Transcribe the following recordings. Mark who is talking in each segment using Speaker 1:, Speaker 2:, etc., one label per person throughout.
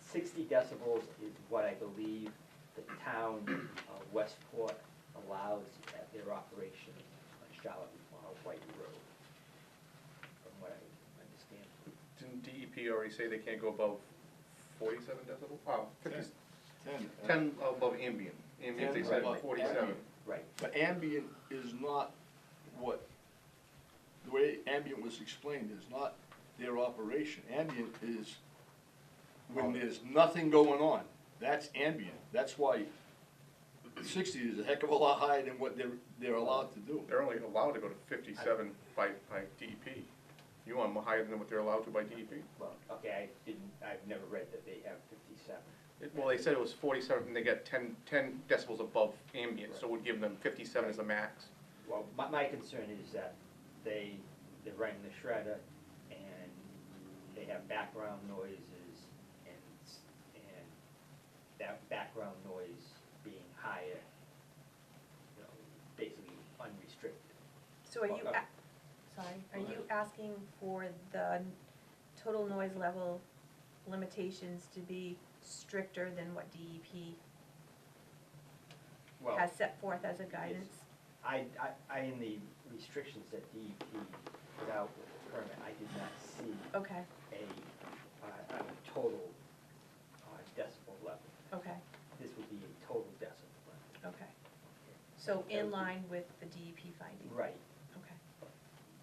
Speaker 1: sixty decibels is what I believe the town of Westport allows at their operation on Charlotte uh, White Road, from what I understand.
Speaker 2: Didn't DEP already say they can't go above forty-seven decibel? Oh, fifty,
Speaker 3: Ten.
Speaker 2: ten above ambient, ambient they
Speaker 3: Ten
Speaker 2: said
Speaker 3: above
Speaker 2: forty-seven.
Speaker 3: ambient.
Speaker 1: Right,
Speaker 3: But ambient is not what, the way ambient was explained is not their operation. Ambient is
Speaker 2: Oh.
Speaker 3: when there's nothing going on. That's ambient. That's why sixty is a heck of a lot higher than what they're, they're allowed to do.
Speaker 2: They're only allowed to go to fifty-seven by, by DEP. You want them higher than what they're allowed to by E DEP?
Speaker 1: well, okay, I didn't, I've never read that they have fifty-seven.
Speaker 2: It- Well, they said it was forty-seven, and they got 10 10 decibels above ambient, so it would give them fifty-seven as a max.
Speaker 1: Well, my, my concern is that they, they rang the shredder and they have background noises and, s- and that background noise being higher, you know, basically unrestricted.
Speaker 4: So are you,
Speaker 1: Well,
Speaker 4: a- sorry, are
Speaker 1: Go
Speaker 4: you asking for the total noise level limitations to be stricter than what DEP
Speaker 1: Well,
Speaker 4: has set forth as a guidance?
Speaker 1: I, I, I, in the restrictions that DEP put out with the permit, I did not see
Speaker 4: Okay,
Speaker 1: a, uh, a total uh, decibel level.
Speaker 4: okay,
Speaker 1: This would be a total decibel level.
Speaker 4: okay. So
Speaker 1: That would
Speaker 4: in
Speaker 1: be-
Speaker 4: line with the DEP finding?
Speaker 1: Right,
Speaker 4: Okay,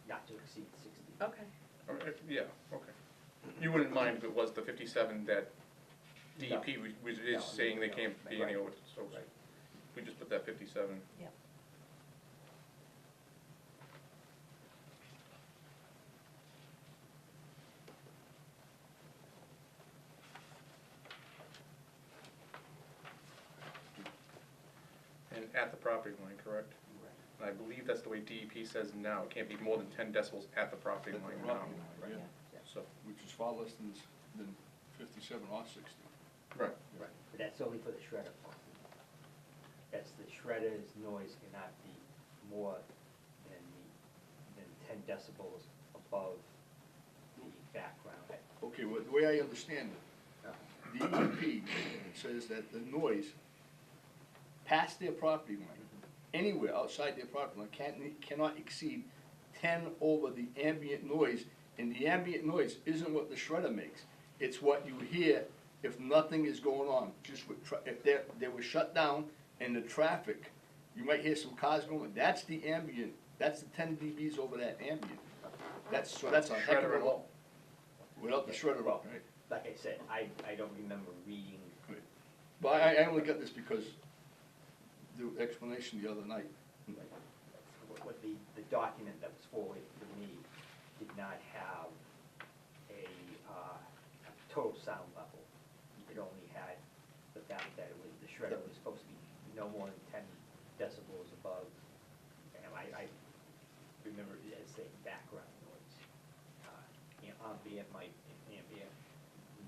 Speaker 1: not to exceed sixty.
Speaker 4: okay,
Speaker 2: All right, yeah, okay. You wouldn't mind if it was the fifty-seven that DEP was- was,
Speaker 1: No,
Speaker 2: is saying they
Speaker 1: no,
Speaker 2: can't be
Speaker 1: right.
Speaker 2: any over, so
Speaker 1: Right.
Speaker 2: we just put that fifty-seven.
Speaker 4: yep.
Speaker 2: And at the property line, correct?
Speaker 1: Right.
Speaker 2: And I believe that's the way DEP says now, it can't be more than ten decibels at the property
Speaker 3: At the
Speaker 2: line now.
Speaker 3: property line, yeah,
Speaker 2: So,
Speaker 3: Which is far less than, than fifty-seven or sixty.
Speaker 2: right,
Speaker 1: Right, but that's only for the shredder part. That's the shredder's noise cannot be more than the, than ten decibels above the background.
Speaker 3: Okay, well, the way I understand it, DEP E says that the noise past their property line, anywhere outside their property line, can't, cannot exceed ten over the ambient noise, and the ambient noise isn't what the shredder makes. It's what you hear if nothing is going on, just with, tra- if they, they were shut down and the traffic, you might hear some cars going, that's the ambient, that's the ten dBs over that ambient. That's, so that's a heck of
Speaker 2: Shredder
Speaker 3: a
Speaker 2: and
Speaker 3: lot.
Speaker 2: all.
Speaker 3: Without the shredder up, right?
Speaker 1: Like I said, I, I don't remember reading,
Speaker 3: But I, I only got this because the explanation the other night.
Speaker 1: like, what- what the, the document that was forwarded to me did not have a, uh, a total sound level. It only had the fact that it was, the shredder was supposed to be no more than ten decibels above. And I, I remember it as saying background noise. Uh, You know, ambient might, ambient,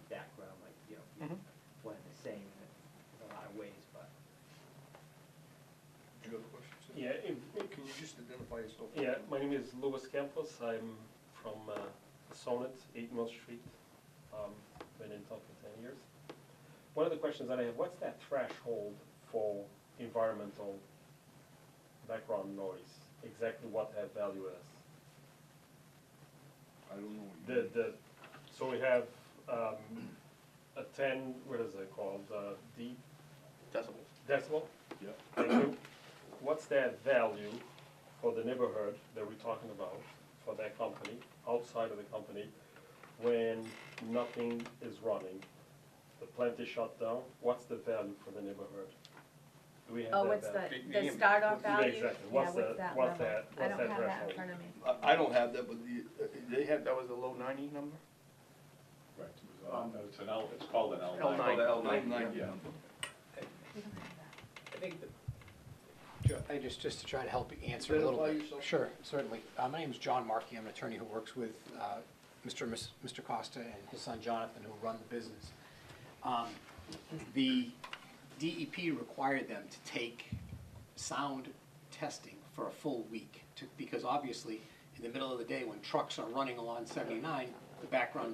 Speaker 1: background might, you know, be
Speaker 2: Mhm.
Speaker 1: one and the same in a lot of ways, but.
Speaker 3: Do you have questions? sir?
Speaker 5: Yeah, if,
Speaker 3: Can you just identify yourself?
Speaker 5: yeah, my name is Louis Campos. I'm from uh, Sonnet, 8 Mill Street. Um, Been in town for 10 years. One of the questions that I have, what's that threshold for environmental background noise? Exactly what that value is?
Speaker 3: I don't know. what you
Speaker 5: The,
Speaker 3: mean.
Speaker 5: the, so we have um, a 10, what is it called, uh, D
Speaker 2: decibels.
Speaker 5: decibel?
Speaker 3: Yep.
Speaker 5: Thank you. What's their value for the neighborhood that we're talking about, for that company, outside of the company, when nothing is running? The plant is shut down, what's the value for the neighborhood? Do we have
Speaker 4: Oh,
Speaker 5: that
Speaker 4: what's the,
Speaker 5: value?
Speaker 2: The-
Speaker 4: the
Speaker 2: the-
Speaker 4: start off
Speaker 2: what's-
Speaker 5: yeah,
Speaker 4: value?
Speaker 5: exactly.
Speaker 4: Yeah,
Speaker 5: What's
Speaker 4: what's
Speaker 5: the-
Speaker 4: that
Speaker 5: what's
Speaker 4: level?
Speaker 5: that- what's that
Speaker 4: I don't have that in
Speaker 5: threshold?
Speaker 4: front of me.
Speaker 3: I, I don't have that, but the, uh, they have,
Speaker 2: That was the low ninety number?
Speaker 6: Right, it's an L, it's called an L nine.
Speaker 2: L9.
Speaker 6: L
Speaker 3: nine, nine,
Speaker 6: Yeah.
Speaker 4: We don't have that.
Speaker 7: I think that. I just, just to try to help you answer a little
Speaker 3: Identify
Speaker 7: bit.
Speaker 3: yourself.
Speaker 7: Sure, certainly. Uh, My name is John Markey. I'm an attorney who works with uh, Mr. and Miss- Mr. Costa and his son Jonathan, who run the business. Um, The DEP required them to take sound testing for a full week, to- because obviously, in the middle of the day, when trucks are running along 79, the background